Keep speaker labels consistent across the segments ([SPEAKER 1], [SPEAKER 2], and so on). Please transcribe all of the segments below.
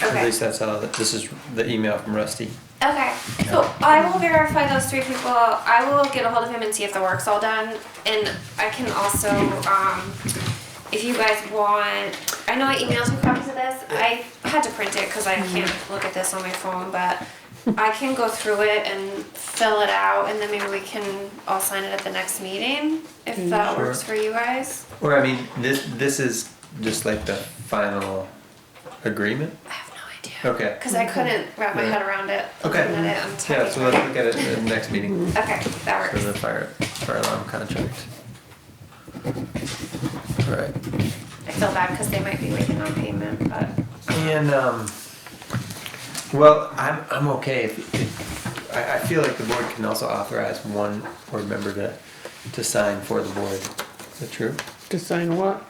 [SPEAKER 1] At
[SPEAKER 2] Okay.
[SPEAKER 1] least that's how, that- this is the email from Rusty.
[SPEAKER 2] Okay, so I will verify those three people. I will get a hold of him and see if the work's all done. And I can also, um, if you guys want, I know I emailed you copies of this. I had to print it because I
[SPEAKER 1] Mm-hmm.
[SPEAKER 2] can't look at this on my phone, but I can go through it and fill it out and then maybe we can all sign it at the next meeting if that
[SPEAKER 1] Mm-hmm. Sure.
[SPEAKER 2] works for you guys.
[SPEAKER 1] Or I mean, this, this is just like the final agreement?
[SPEAKER 2] I have no idea.
[SPEAKER 1] Okay. Mm-hmm.
[SPEAKER 2] Because I couldn't wrap my
[SPEAKER 1] Yeah.
[SPEAKER 2] head around it.
[SPEAKER 1] Okay.
[SPEAKER 2] Looking at it, I'm typing.
[SPEAKER 1] Yeah, so let's look at it at the next meeting
[SPEAKER 2] Okay, that
[SPEAKER 1] for
[SPEAKER 2] works.
[SPEAKER 1] the fire, fire alarm contract. Alright,
[SPEAKER 2] I feel bad because they might be waiting on payment, but
[SPEAKER 1] and, um, well, I'm, I'm okay if, if, I, I feel like the board can also authorize one board member to, to sign for the board. Is that true?
[SPEAKER 3] To sign what?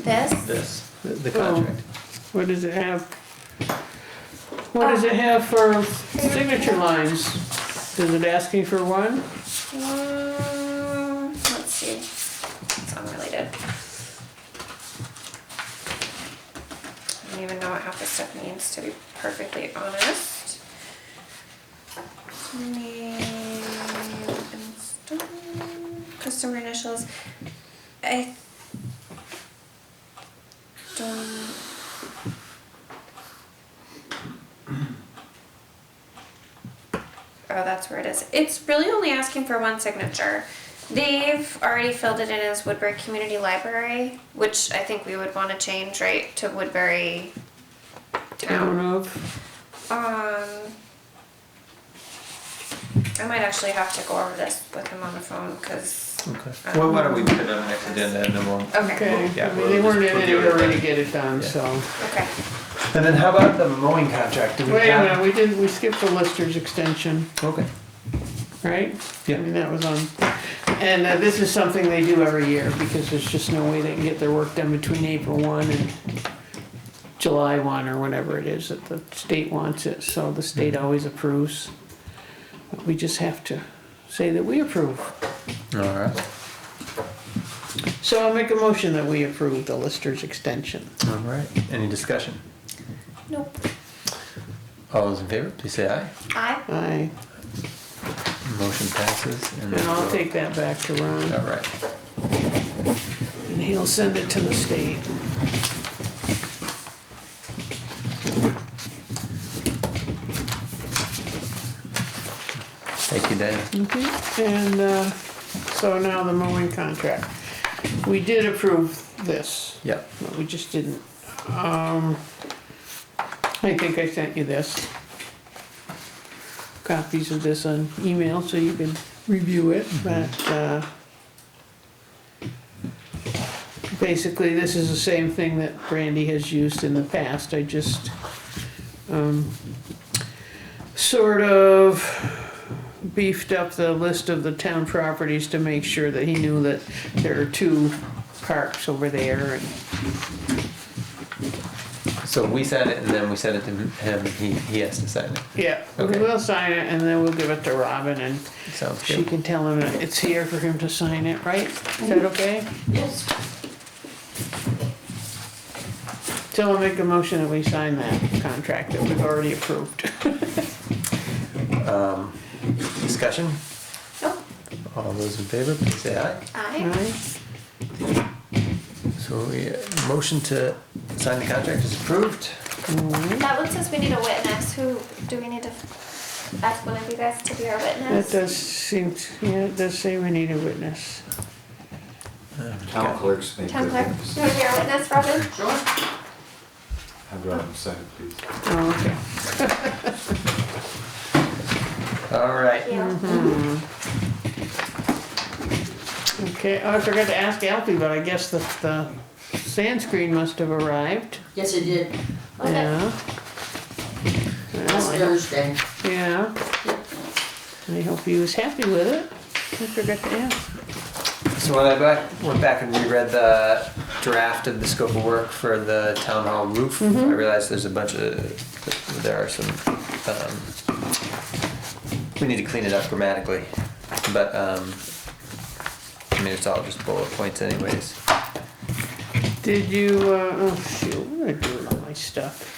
[SPEAKER 2] this,
[SPEAKER 1] This, the- the
[SPEAKER 3] Oh.
[SPEAKER 1] contract.
[SPEAKER 3] What does it have? What does it have for signature lines? Does it ask you for one?
[SPEAKER 2] um, let's see, it's unrelated. I don't even know what half this stuff means, to be perfectly honest. Name and stuff, customer initials. I don't. Oh, that's where it is. It's really only asking for one signature. They've already filled it in as Woodbury Community Library, which I think we would want to change, right, to Woodbury
[SPEAKER 3] Town
[SPEAKER 2] Town.
[SPEAKER 3] of,
[SPEAKER 2] Um, I might actually have to go over this with him on the phone because.
[SPEAKER 1] Okay. Well, why don't we put it on the next agenda and then we'll.
[SPEAKER 2] Okay.
[SPEAKER 3] okay,
[SPEAKER 1] Yeah,
[SPEAKER 3] I
[SPEAKER 1] we'll
[SPEAKER 3] mean, they weren't
[SPEAKER 1] just
[SPEAKER 3] in
[SPEAKER 1] put
[SPEAKER 3] any
[SPEAKER 1] the other
[SPEAKER 3] hurry to
[SPEAKER 1] thing.
[SPEAKER 3] get it done,
[SPEAKER 1] Yeah.
[SPEAKER 3] so.
[SPEAKER 2] Okay.
[SPEAKER 1] And then how about the mowing contract? Do we
[SPEAKER 3] Wait a
[SPEAKER 1] have-
[SPEAKER 3] minute, we didn't, we skipped the Lister's extension,
[SPEAKER 1] Okay.
[SPEAKER 3] right?
[SPEAKER 1] Yeah.
[SPEAKER 3] I mean, that was on, and uh, this is something they do every year, because there's just no way they can get their work done between April one and July one, or whenever it is that the state wants it, so the state always approves. But We just have to say that we approve.
[SPEAKER 1] All right.
[SPEAKER 3] So I'll make a motion that we approve the Lister's extension.
[SPEAKER 1] All right. Any discussion?
[SPEAKER 2] Nope.
[SPEAKER 1] All those in favor, please say aye.
[SPEAKER 2] I.
[SPEAKER 3] Aye,
[SPEAKER 1] Motion passes.
[SPEAKER 3] and I'll take that back to
[SPEAKER 1] All
[SPEAKER 3] Ron,
[SPEAKER 1] right.
[SPEAKER 3] and he'll send it to the state.
[SPEAKER 1] Thank you, Dana.
[SPEAKER 3] Okay, and, uh, so now the mowing contract. We did approve this,
[SPEAKER 1] Yeah.
[SPEAKER 3] but we just didn't, um, I think I sent you this. Copies of this on email, so you can review it, but, uh, basically, this is the same thing that Brandy has used in the past, I just, um, sort of beefed up the list of the town properties to make sure that he knew that there are two parks over there and
[SPEAKER 1] So we sign it and then we send it to him. He, he has to sign it.
[SPEAKER 3] Yeah,
[SPEAKER 1] Okay.
[SPEAKER 3] we'll sign it and then we'll give it to Robin and
[SPEAKER 1] Sounds
[SPEAKER 3] she
[SPEAKER 1] good.
[SPEAKER 3] can tell him that it's here for him to sign it, right? Is that okay?
[SPEAKER 4] Yes.
[SPEAKER 3] Tell him make a motion that we sign that contract that we've already approved.
[SPEAKER 1] Um, discussion?
[SPEAKER 2] Nope.
[SPEAKER 1] All those in favor, please say aye.
[SPEAKER 2] I.
[SPEAKER 3] Right?
[SPEAKER 1] So we, uh, motion to sign the contract is approved.
[SPEAKER 2] That one says we need a witness. Who do we need to ask one of you guys to be our
[SPEAKER 3] That
[SPEAKER 2] witness?
[SPEAKER 3] does seem, to- yeah, it does say we need a witness.
[SPEAKER 4] Town clerks make
[SPEAKER 2] Town
[SPEAKER 4] good
[SPEAKER 2] clerk,
[SPEAKER 4] things.
[SPEAKER 2] you want to be our witness, Robin?
[SPEAKER 4] Sure. Have Robin sign it, please.
[SPEAKER 3] Oh, okay.
[SPEAKER 1] All right.
[SPEAKER 2] Yeah.
[SPEAKER 3] Okay, oh, I forgot to ask Alfie, but I guess the, the sand screen must have arrived.
[SPEAKER 4] Yes, it did.
[SPEAKER 3] Yeah.
[SPEAKER 4] Last
[SPEAKER 3] Well,
[SPEAKER 4] Thursday.
[SPEAKER 3] I- Yeah. I hope he was happy with it. I forgot to ask.
[SPEAKER 1] So when I back, went back and reread the draft of the scope of work for the town hall roof, I realized there's a bunch of, there are some, um, we need to clean it up grammatically, but, um, I mean, it's all just bullet points anyways.
[SPEAKER 3] Did you, uh, oh shoot, what did I do with all my stuff?